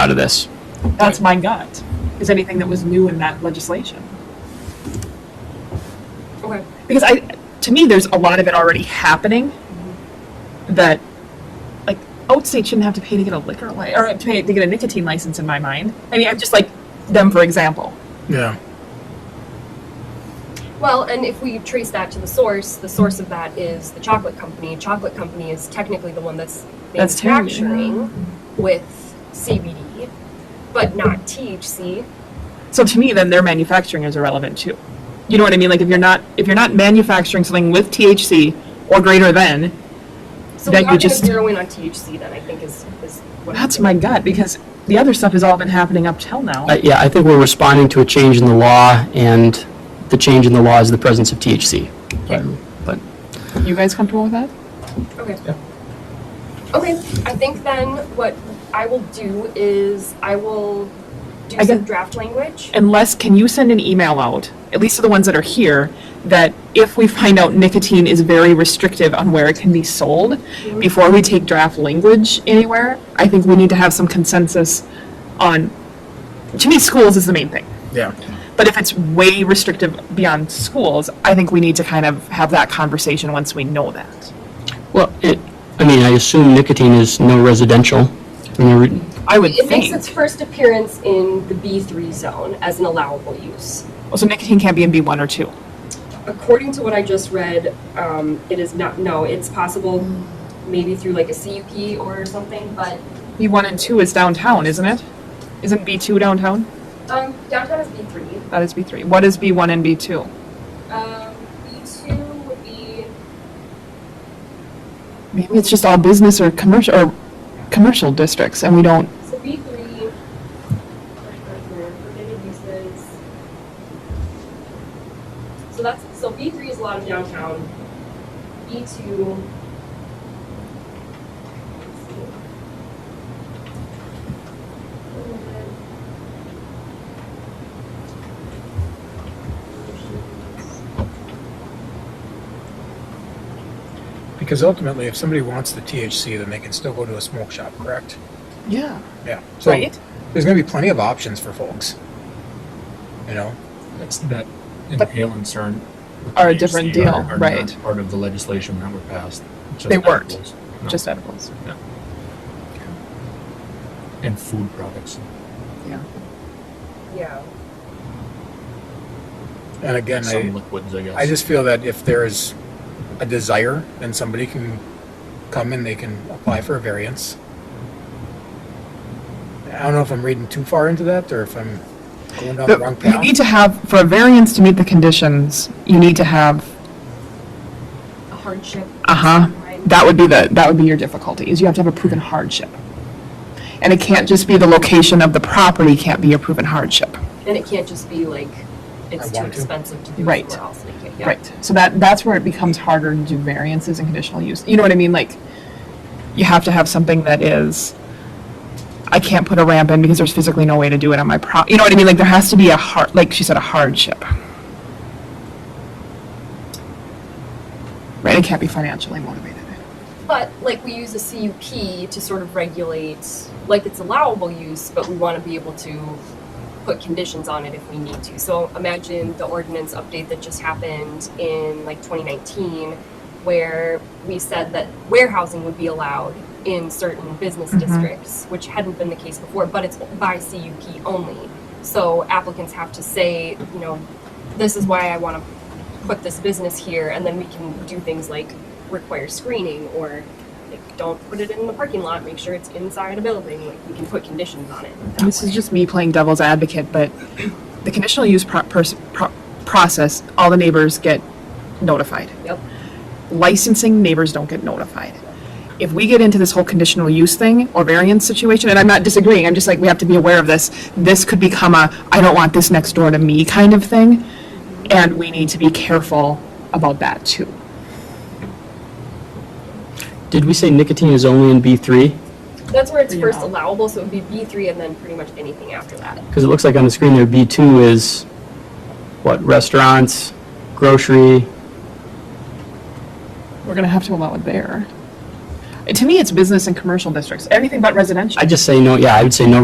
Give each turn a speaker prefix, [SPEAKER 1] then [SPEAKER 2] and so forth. [SPEAKER 1] out of this.
[SPEAKER 2] That's my gut, is anything that was new in that legislation.
[SPEAKER 3] Okay.
[SPEAKER 2] Because I, to me, there's a lot of it already happening that, like, Oat State shouldn't have to pay to get a liquor li- or to pay to get a nicotine license in my mind. I mean, I'm just like them, for example.
[SPEAKER 4] Yeah.
[SPEAKER 3] Well, and if we trace that to the source, the source of that is the chocolate company. Chocolate company is technically the one that's
[SPEAKER 2] That's terrible.
[SPEAKER 3] manufacturing with CBD, but not THC.
[SPEAKER 2] So to me, then their manufacturing is irrelevant too. You know what I mean? Like if you're not if you're not manufacturing something with THC or greater than,
[SPEAKER 3] So
[SPEAKER 2] That you
[SPEAKER 3] we are going to
[SPEAKER 2] just-
[SPEAKER 3] zero in on THC. Then I think is is what I'm
[SPEAKER 2] that's my gut because the other stuff has all been happening up till now.
[SPEAKER 5] I- Yeah, I think we're responding to a change in the law, and the change in the law is the presence of THC.
[SPEAKER 1] But
[SPEAKER 2] you guys comfortable with that?
[SPEAKER 3] Okay. Okay, I think then what I will do is I will do
[SPEAKER 2] I
[SPEAKER 3] some
[SPEAKER 2] guess-
[SPEAKER 3] draft language.
[SPEAKER 2] Unless can you send an email out, at least to the ones that are here, that if we find out nicotine is very restrictive on where it can be sold, before we take draft language anywhere, I think we need to have some consensus on to me schools is the main thing.
[SPEAKER 4] Yeah.
[SPEAKER 2] But if it's way restrictive beyond schools, I think we need to kind of have that conversation once we know that.
[SPEAKER 5] Well, it, I mean, I assume nicotine is no residential. I mean, re-
[SPEAKER 2] I would
[SPEAKER 3] It makes
[SPEAKER 2] think.
[SPEAKER 3] its first appearance in the B3 zone as an allowable use.
[SPEAKER 2] So nicotine can't be in B1 or 2.
[SPEAKER 3] According to what I just read, um, it is not, no, it's possible maybe through like a CUP or something, but
[SPEAKER 2] B1 and 2 is downtown, isn't it? Isn't B2 downtown?
[SPEAKER 3] um, downtown is B3.
[SPEAKER 2] That is B3. What is B1 and B2?
[SPEAKER 3] Um, B2 would be,
[SPEAKER 2] Maybe it's just all business or commercial or commercial districts and we don't
[SPEAKER 3] so B3, permitted uses. So that's, so B3 is a lot of downtown. B2. let's see.
[SPEAKER 4] Because ultimately, if somebody wants the THC, then they can still go to a smoke shop, correct?
[SPEAKER 2] Yeah.
[SPEAKER 4] Yeah. So
[SPEAKER 2] Right.
[SPEAKER 4] there's going to be plenty of options for folks. You know?
[SPEAKER 6] That's that inhalants aren't.
[SPEAKER 2] Are a different
[SPEAKER 6] THC, are-
[SPEAKER 2] deal,
[SPEAKER 6] are not
[SPEAKER 2] right.
[SPEAKER 6] Part of the legislation that were passed. just
[SPEAKER 2] They weren't.
[SPEAKER 6] edibles. No,
[SPEAKER 2] Just edibles.
[SPEAKER 6] And food products.
[SPEAKER 3] Yeah.
[SPEAKER 4] And again,
[SPEAKER 6] Some
[SPEAKER 4] I,
[SPEAKER 6] liquids, I guess.
[SPEAKER 4] I just feel that if there is a desire, then somebody can come and they can apply for a variance. I don't know if I'm reading too far into that or if I'm going down the wrong
[SPEAKER 2] But You
[SPEAKER 4] path.
[SPEAKER 2] need to have, for a variance to meet the conditions, you need to have
[SPEAKER 3] A hardship.
[SPEAKER 2] Uh-huh.
[SPEAKER 3] Right.
[SPEAKER 2] That would be the, that would be your difficulty, is you have to have a proven hardship. And it can't just be the location of the property can't be a proven hardship.
[SPEAKER 3] And it can't just be like, it's
[SPEAKER 4] I
[SPEAKER 3] too
[SPEAKER 4] want to.
[SPEAKER 3] expensive to do
[SPEAKER 2] Right.
[SPEAKER 3] somewhere else. Like, yeah, yeah.
[SPEAKER 2] Right, so that, that's where it becomes harder to do variances and conditional use. You know what I mean? Like, you have to have something that is, I can't put a ramp in because there's physically no way to do it on my pro, you know what I mean? Like, there has to be a hard, like she said, a hardship. Right, it can't be financially motivated.
[SPEAKER 3] But like we use a CUP to sort of regulate, like it's allowable use, but we want to be able to put conditions on it if we need to. So imagine the ordinance update that just happened in like 2019, where we said that warehousing would be allowed in certain business districts, which hadn't been the case before, but it's by CUP only. So applicants have to say, you know, this is why I want to put this business here, and then we can do things like require screening or like don't put it in the parking lot, make sure it's inside a building, like we can put conditions on it.
[SPEAKER 2] And this is just me playing devil's advocate, but the conditional use pro- pers- pro- process, all the neighbors get notified.
[SPEAKER 3] Yep.
[SPEAKER 2] Licensing, neighbors don't get notified. If we get into this whole conditional use thing or variance situation, and I'm not disagreeing, I'm just like, we have to be aware of this. This could become a, I don't want this next door to me kind of thing. And we need to be careful about that too.
[SPEAKER 5] Did we say nicotine is only in B3?
[SPEAKER 3] That's where it's
[SPEAKER 2] Yeah.
[SPEAKER 3] first allowable, so it would be B three and then pretty much anything after that.
[SPEAKER 5] Because it looks like on the screen there, B2 is, what, restaurants, grocery?
[SPEAKER 2] We're gonna have to allow it there. And To me, it's business and commercial districts, everything but residential.
[SPEAKER 5] I'd just say no, yeah, I would say no